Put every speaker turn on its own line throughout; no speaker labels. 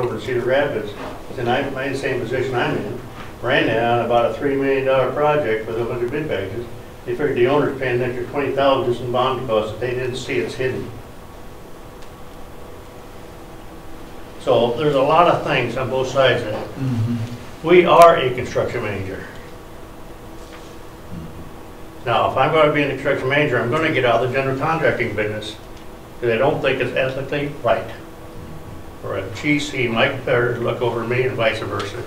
over to Cedar Rapids, and I'm, I'm in the same position I'm in, ran down about a three million dollar project with a hundred bid packages. They figured the owner's paying an extra twenty thousand in bond costs, that they didn't see it's hidden. So there's a lot of things on both sides of it. We are a construction manager. Now, if I'm gonna be a construction manager, I'm gonna get out of the general contracting business, because I don't think it's ethically right or a GC might better look over me and vice versa.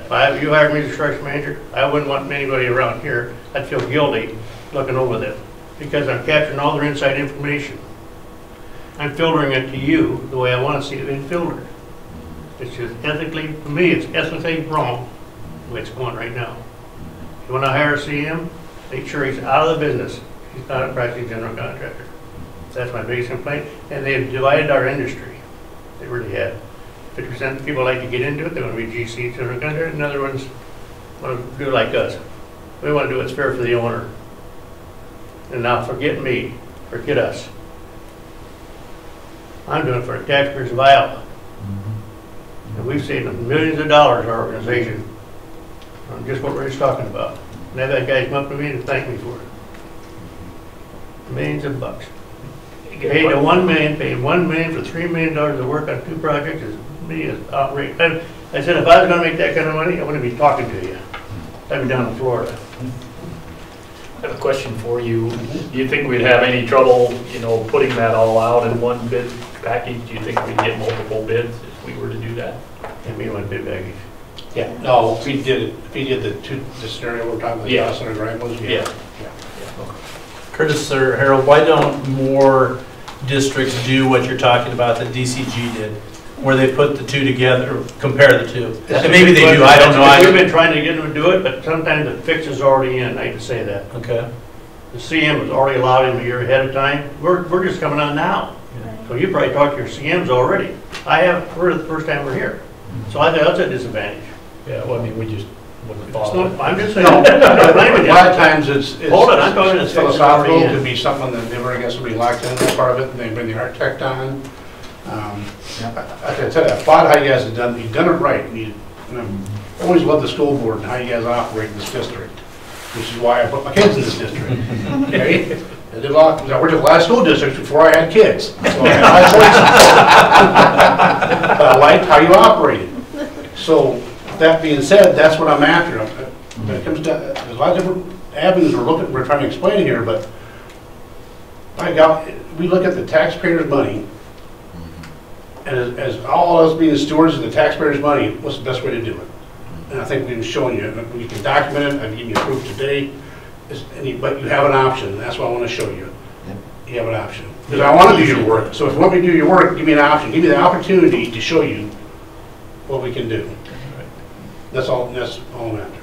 If I, you hired me as construction manager, I wouldn't want anybody around here, I'd feel guilty looking over them, because I'm capturing all their inside information. I'm filtering it to you the way I want to see it being filtered. It's just ethically, to me, it's ethically wrong, the way it's going right now. You want to hire a CM, make sure he's out of the business, he's not a practicing general contractor. That's my biggest complaint, and they've divided our industry. They really have. Fifty percent of people like to get into it, they want to be GCs, and another another ones want to do like us. We want to do what's fair for the owner. And now forget me, forget us. I'm doing it for the taxpayers of Iowa. And we've saved them millions of dollars, our organization, on just what we're just talking about. And I've had guys come up to me and thank me for it. Millions of bucks. Paying to one million, paying one million for three million dollars to work on two projects is, me is outrageous. I I said, if I was gonna make that kind of money, I wouldn't be talking to you. I'd be down in Florida.
I have a question for you. Do you think we'd have any trouble, you know, putting that all out in one bid package? Do you think we'd get multiple bids if we were to do that?
And we went big baggage.
Yeah, no, if we did, it- if we did the two, the scenario we're talking about, the
Yeah.
Dawson and Ramos, yeah.
Yeah.
Curtis or Harold, why don't more districts do what you're talking about that DCG did? Where they put the two together, compare the two? And maybe they do, I don't know.
We've
I-
been trying to get them to do it, but sometimes the fix is already in, I hate to say that.
Okay,
The CM has already allowed him a year ahead of time. We're, we're just coming on now. So you probably talked to your CMs already. I have, we're the first time we're here. So I think that's a disadvantage.
Yeah, well, I mean, we just wouldn't have
It's
thought
not-
of it.
I'm just saying, I'm not blaming
A
you.
lot of times it's, it's
Hold it, I'm talking to
it's
Spencer
philosophical,
Murray.
to be something that they were, I guess, would be locked in as part of it, and they bring the architect on. Um, I- Like I said, I applaud how you guys have done, you've done it right, and you, and I'm- I always love the school board and how you guys operate in this district, which is why I put my kids in this district. Okay? I did a lot, I worked at a lot of school districts before I had kids. so I had a lot of choices. But I liked how you operated. So, that being said, that's what I'm after. When it comes down, there's a lot of different avenues we're looking, we're trying to explain here, but by God, we look at the taxpayers' money, and as, as all of us being stewards of the taxpayers' money, what's the best way to do it? And I think we've shown you, and we can document it, I've given you proof today, is, and you- but you have an option, and that's what I want to show you. You have an option. Because I want to do your work, so if you want me to do your work, give me an option, give me the opportunity to show you what we can do. That's all, that's all I'm after.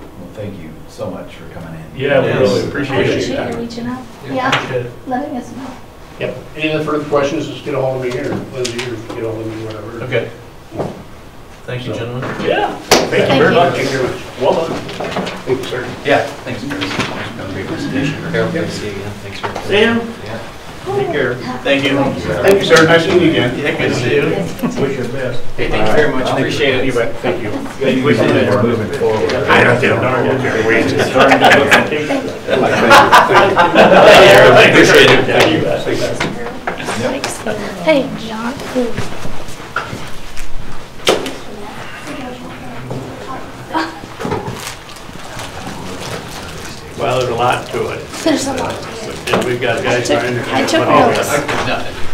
Well, thank you so much for coming in.
Yeah, we really
Yes.
appreciate it.
Appreciate
Appreciate
your
you
time.
reaching out. Yeah,
Good.
letting us know.
Yep. Any other further questions, just get a hold of me here, Lindsay, or get a hold of me, whatever.
okay. Thank you, gentlemen.
Yeah,
Thank
Thank
you very
you.
much. Thank you very much.
well done.
Thank you, sir.
Yeah, thanks, Chris. That was a great presentation.
Harold, good to see you again. Thanks for.
Sam,
Take
care.
Thank you.
Thank you, sir. Nice seeing you again.
Yeah, good to see you.
wish you the best.
Hey, thank you very much. Appreciate it.
Thank you.
Thank you for moving forward.
I don't think I'm going to wait.
Appreciate it.
Thanks. Hey, John.
Well, there's a lot to it,
There's a lot. to it.
and we've got
I
guys
took-
trying to.
I took notes.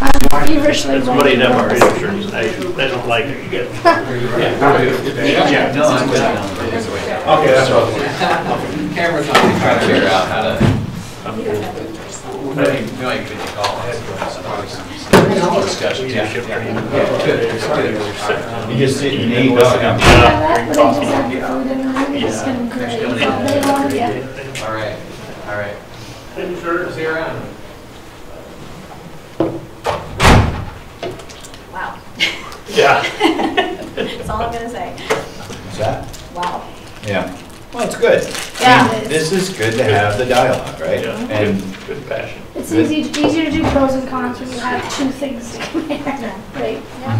I'm feverishly
It's muddied
writing
up our
notes.
industry, they, they don't like it. You get-
No, I'm good. Okay,
Okay, that's all.
Cameras on, trying to figure out how to. I think, no, you could call. Discussion, yeah. yeah. Good, good.
You just sit, you need, uh,
Yeah, that would have designed food and I'm just gonna grade all day long, yeah.
All right, all right. See you around.
Wow,
Yeah.
that's all I'm gonna say.
what's that?
Wow.
Yeah. Well, it's good.
Yeah.
This is good to have the dialogue, right?
Yeah.
And
Good passion.
It's easy, easier to do pros and cons when you have two things to compare, right?